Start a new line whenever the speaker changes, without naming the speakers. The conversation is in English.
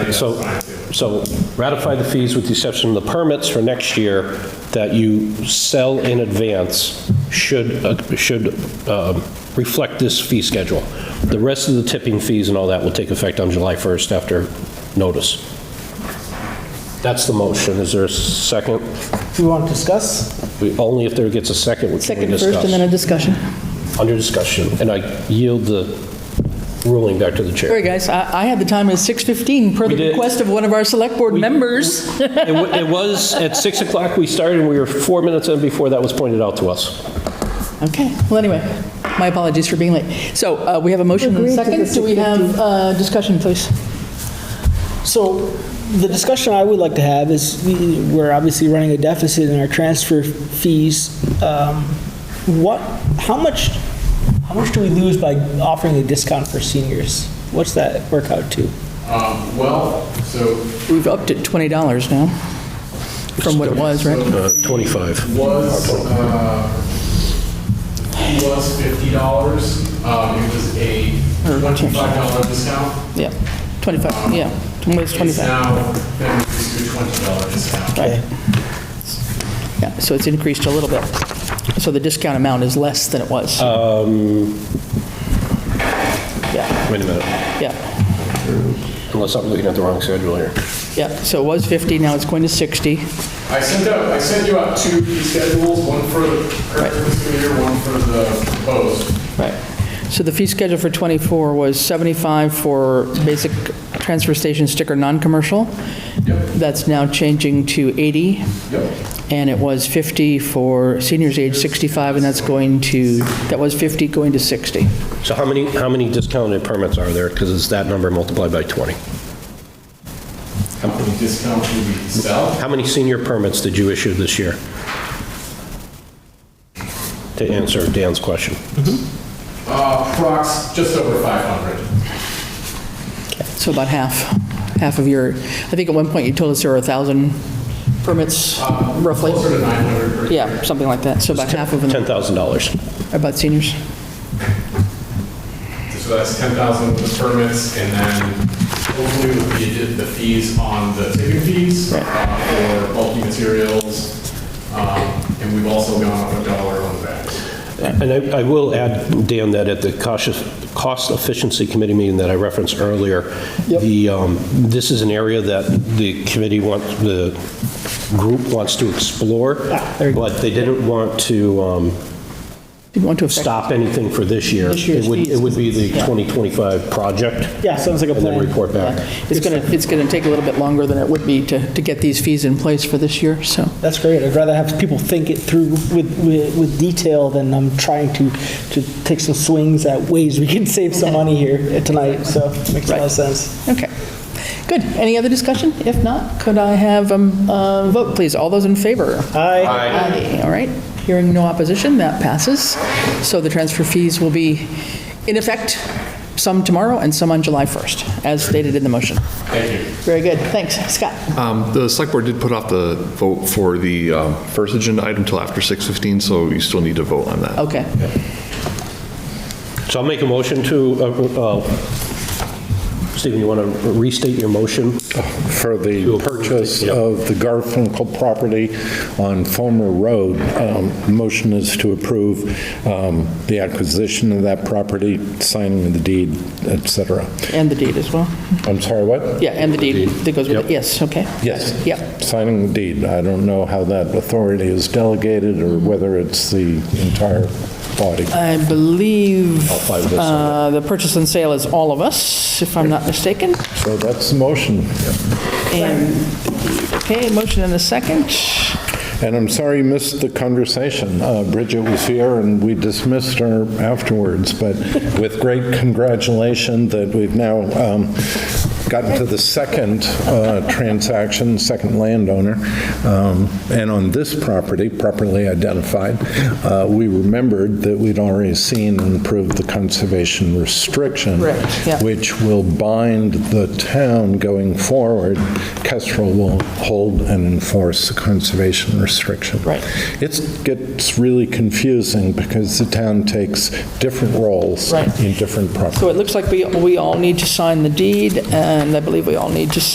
So, so ratify the fees with the exception of the permits for next year that you sell in advance should, uh, should um, reflect this fee schedule. The rest of the tipping fees and all that will take effect on July 1st after notice. That's the motion. Is there a second?
Do you want to discuss?
We- Only if there gets a second, which we
Second first and then
discuss.
a discussion.
Under discussion, and I yield the ruling back to the chair.
Sorry, guys, I I had the time at 6:15 per
We
the
did.
request of one of our select board members.
It wa- It was, at 6 o'clock we started, and we were four minutes in before that was pointed out to us.
Okay, well, anyway, my apologies for being late. So uh, we have a motion and a
Agreed to
second.
the
Do we have uh, discussion, please?
So the discussion I would like to have is, we- we're obviously running a deficit in our transfer fees. Um, What, how much, how much do we lose by offering a discount for seniors? What's that work out to?
Um, Well, so
We've upped it $20 now from what it was, right?
Uh, 25.
was, uh, it was fifty dollars. Um, it was a twenty-five dollar discount.
Yeah, 25, yeah, it was
It's
25.
now been reduced to a twenty dollar discount.
Okay.
Yeah, so it's increased a little bit. So the discount amount is less than it was.
Um.
Yeah,
Wait a minute,
yeah,
unless I'm looking at the wrong schedule here.
yeah. So it was 50, now it's going to 60.
I sent out, I sent you out two fee schedules, one for the current fiscal year, one for the proposed.
Right. So the fee schedule for '24 was 75 for basic transfer station sticker, non-commercial. That's now changing to 80.
Yep.
And it was 50 for seniors age 65, and that's going to, that was 50 going to 60.
So how many, how many discounted permits are there? Because it's that number multiplied by 20.
How many discounts did we sell?
How many senior permits did you issue this year? To answer Dan's question.
Uh, prox, just over five hundred.
So about half, half of your, I think at one point you told us there were 1,000 permits roughly.
Uh, Closer to nine hundred per year.
Yeah, something like that. So about half of them
$10,000.
are about seniors.
So that's 10,000 with the permits, and then hopefully we did the fees on the tipping fees
Right.
uh, for bulky materials, Um, and we've also gone up a dollar on the bags.
And I, I will add, Dan, that at the cautious, cost efficiency committee meeting that I referenced earlier, the, um, this is an area that the committee wants, the group wants to explore, but they didn't want to um,
Didn't want to affect.
stop anything for this year.
This year's
It would, it would be the
fees.
2025 project.
Yeah, sounds like a
And then
plan.
report back.
It's going to, it's going to take a little bit longer than it would be to, to get these fees in place for this year, so.
That's great. I'd rather have people think it through with, with, with detail than I'm trying to, to take some swings at ways we can save some money here tonight, so makes a lot
Right.
of sense.
Okay, good. Any other discussion? If not, could I have um, a vote, please? All those in favor?
Aye.
Aye. All right, hearing no opposition, that passes. So the transfer fees will be in effect, some tomorrow and some on July 1st, as stated in the motion.
Thank you.
Very good, thanks. Scott?
Um, The select board did put off the vote for the um, first agenda item till after 6:15, so you still need to vote on that.
Okay,
So I'll make a motion to, uh, uh, Stephen, you want to restate your motion?
for
To
the
approve the-
purchase
yeah.
of the Garfinkel property on Fulmer Road. Um, Motion is to approve um, the acquisition of that property, signing of the deed, et cetera.
and the deed as well?
I'm sorry, what?
Yeah, and the deed that goes with it,
Yep.
yes, okay.
Yes.
Yep,
Signing the deed. I don't know how that authority is delegated or whether it's the entire body.
I believe
I'll find this out.
uh, the purchase and sale is all of us, if I'm not mistaken.
So that's the motion.
And, okay, motion and a second.
And I'm sorry you missed the conversation. Uh, Bridget was here, and we dismissed her afterwards, but with great congratulation that we've now um, gotten to the second uh, transaction, second landowner. Um, And on this property, properly identified, uh, we remembered that we'd already seen and approved the conservation restriction.
Correct, yeah.
Which will bind the town going forward. Kestrel will hold and enforce the conservation restriction.
Right.
It gets really confusing because the town takes different roles
Right.
in different properties.
So it looks like we, we all need to sign the deed, and I believe we all need to